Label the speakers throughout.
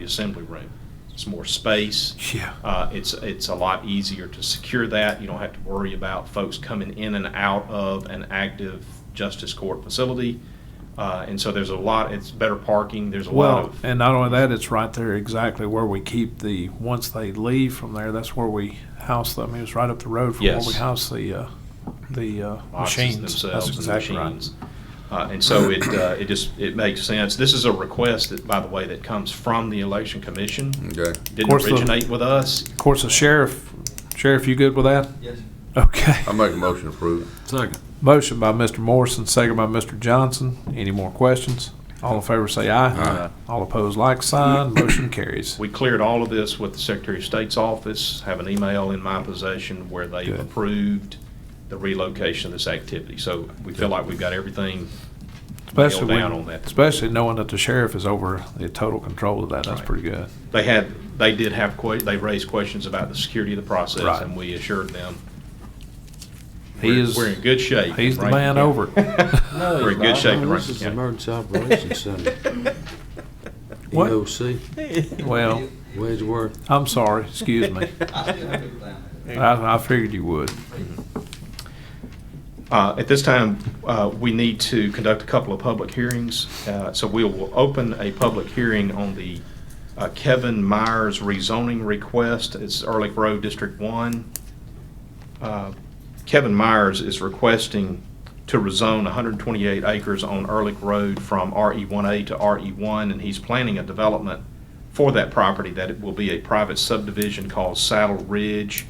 Speaker 1: the assembly room. It's more space.
Speaker 2: Yeah.
Speaker 1: Uh, it's, it's a lot easier to secure that. You don't have to worry about folks coming in and out of an active justice court facility. Uh, and so there's a lot, it's better parking, there's a lot
Speaker 2: Well,
Speaker 1: of.
Speaker 2: and not only that, it's right there exactly where we keep the, once they leave from there, that's where we house them. I mean, it's right up the road from where
Speaker 1: Yes.
Speaker 2: we house the, uh, the, uh,
Speaker 1: boxes
Speaker 2: machines. That's
Speaker 1: themselves and
Speaker 2: exactly right.
Speaker 1: machines. Uh, and so it, uh, it just, it makes sense. This is a request that, by the way, that comes from the election commission.
Speaker 3: Okay.
Speaker 1: Didn't
Speaker 2: course, the-
Speaker 1: originate with us.
Speaker 2: Of course, the sheriff, sheriff, you good with that? Yes. Okay.
Speaker 1: Um,
Speaker 3: I make a motion to approve.
Speaker 4: Second.
Speaker 2: Motion by Mr. Morrison, second by Mr. Johnson. Any more questions? All in favor say aye.
Speaker 3: Aye.
Speaker 2: All opposed, like sign. Motion carries.
Speaker 1: We cleared all of this with the Secretary of State's office, have an email in my possession where they
Speaker 2: Good.
Speaker 1: approved the relocation of this activity. So we feel like we've got everything
Speaker 2: Especially
Speaker 1: nailed down on
Speaker 2: when,
Speaker 1: that.
Speaker 2: especially knowing that the sheriff is over the total control of that. That's
Speaker 1: Right.
Speaker 2: pretty good.
Speaker 1: They had, they did have, que- they raised questions about the security of the process,
Speaker 2: Right.
Speaker 1: and we assured them
Speaker 2: He
Speaker 1: we're-
Speaker 2: is,
Speaker 1: We're in good shape.
Speaker 2: he's the
Speaker 1: right?
Speaker 2: man over.
Speaker 4: No,
Speaker 1: We're in good shape in
Speaker 4: This
Speaker 1: Rankin
Speaker 4: is the
Speaker 1: County.
Speaker 4: Emergency Operations Center,
Speaker 2: What?
Speaker 4: EOC,
Speaker 2: Well,
Speaker 4: Wedgeworth.
Speaker 2: I'm sorry, excuse me. I, I figured you would.
Speaker 1: Uh, At this time, uh, we need to conduct a couple of public hearings, Uh, so we will open a public hearing on the uh, Kevin Myers rezoning request. It's Ehrlich Road, District 1. Uh, Kevin Myers is requesting to rezone 128 acres on Ehrlich Road from RE1A to RE1, and he's planning a development for that property that it will be a private subdivision called Saddle Ridge.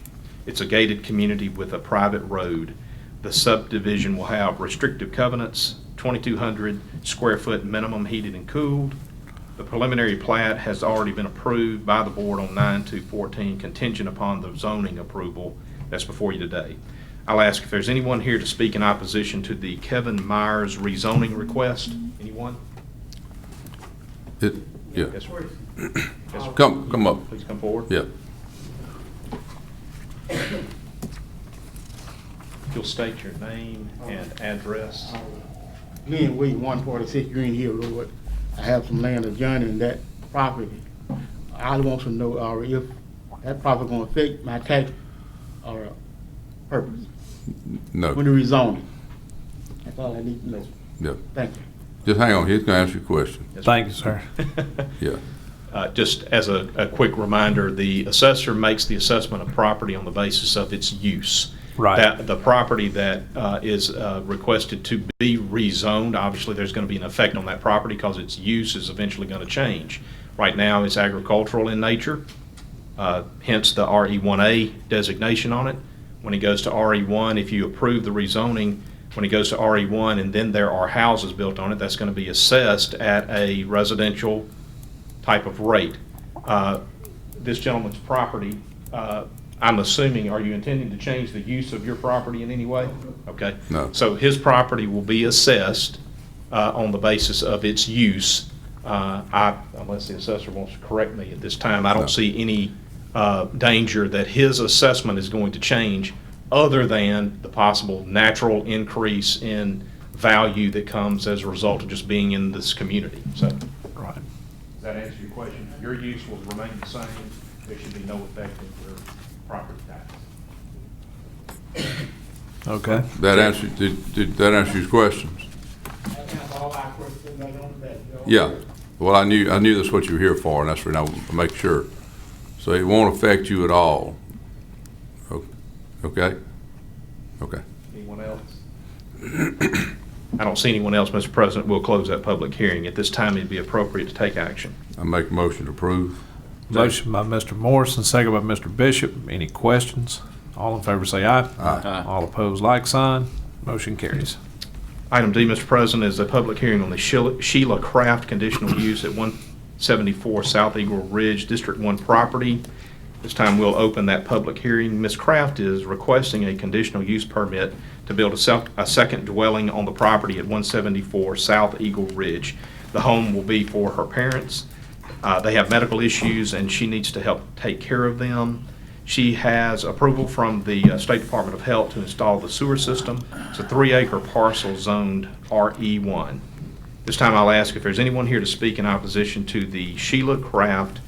Speaker 1: It's a gated community with a private road. The subdivision will have restrictive covenants, 2,200 square foot minimum heated and cooled. The preliminary plat has already been approved by the board on 9/2/14 contingent upon the zoning approval that's before you today. I'll ask if there's anyone here to speak in opposition to the Kevin Myers rezoning request. Anyone?
Speaker 3: It, yeah.
Speaker 1: Yes, sir. Yes, sir.
Speaker 3: Come, come up.
Speaker 1: Please come forward.
Speaker 3: Yeah.
Speaker 1: If You'll state your name and address.
Speaker 5: Lynn Wade, one forty-six Green Hill Road. I have some land adjoining that property. I want to know, uh, if that property gonna affect my tax, or purpose, when
Speaker 3: No,
Speaker 5: the rezoning. That's all I need to know.
Speaker 3: yeah.
Speaker 5: Thank you.
Speaker 3: Just hang on. He's gonna ask you a question.
Speaker 1: Yes,
Speaker 2: Thank you, sir.
Speaker 3: Yeah.
Speaker 1: Uh, Just as a, a quick reminder, the assessor makes the assessment of property on the basis of its use.
Speaker 2: Right.
Speaker 1: That, the property that uh, is uh, requested to be rezoned, obviously, there's going to be an effect on that property because its use is eventually going to change. Right now, it's agricultural in nature, uh, hence the RE1A designation on it. When it goes to RE1, if you approve the rezoning, when it goes to RE1 and then there are houses built on it, that's going to be assessed at a residential type of rate. Uh, This gentleman's property, uh, I'm assuming, are you intending to change the use of your property in any way? Okay.
Speaker 3: No.
Speaker 1: So his property will be assessed uh, on the basis of its use. Uh, I, unless the assessor wants to correct me at this time, I
Speaker 3: No.
Speaker 1: don't see any uh, danger that his assessment is going to change other than the possible natural increase in value that comes as a result of just being in this community, so.
Speaker 2: Right.
Speaker 1: Does that answer your question? Your use will remain the same, there should be no effect on your property tax.
Speaker 2: Okay.
Speaker 3: That answered, did, did that answer your questions?
Speaker 5: That's all I question, I don't, that,
Speaker 3: Yeah. Well, I knew, I knew that's what you were here for and that's what I wanted to make sure. So it won't affect you at all. O- Okay? Okay.
Speaker 1: Anyone else? I don't see anyone else, Mr. President, we'll close that public hearing. At this time, it'd be appropriate to take action.
Speaker 3: I make a motion to approve.
Speaker 2: Motion by Mr. Morrison, second by Mr. Bishop. Any questions? All in favor say aye.
Speaker 3: Aye.
Speaker 2: All opposed, like sign. Motion carries.
Speaker 1: Item D, Mr. President, is a public hearing on the Sheila- Sheila Craft conditional use at 174 South Eagle Ridge, District 1 property. This time, we'll open that public hearing. Ms. Craft is requesting a conditional use permit to build a sec- a second dwelling on the property at 174 South Eagle Ridge. The home will be for her parents. Uh, They have medical issues, and she needs to help take care of them. She has approval from the uh, State Department of E Health to install the sewer system. It's a three-acre parcel zoned RE1. This time I'll ask if there's anyone here to speak in opposition to the Sheila Craft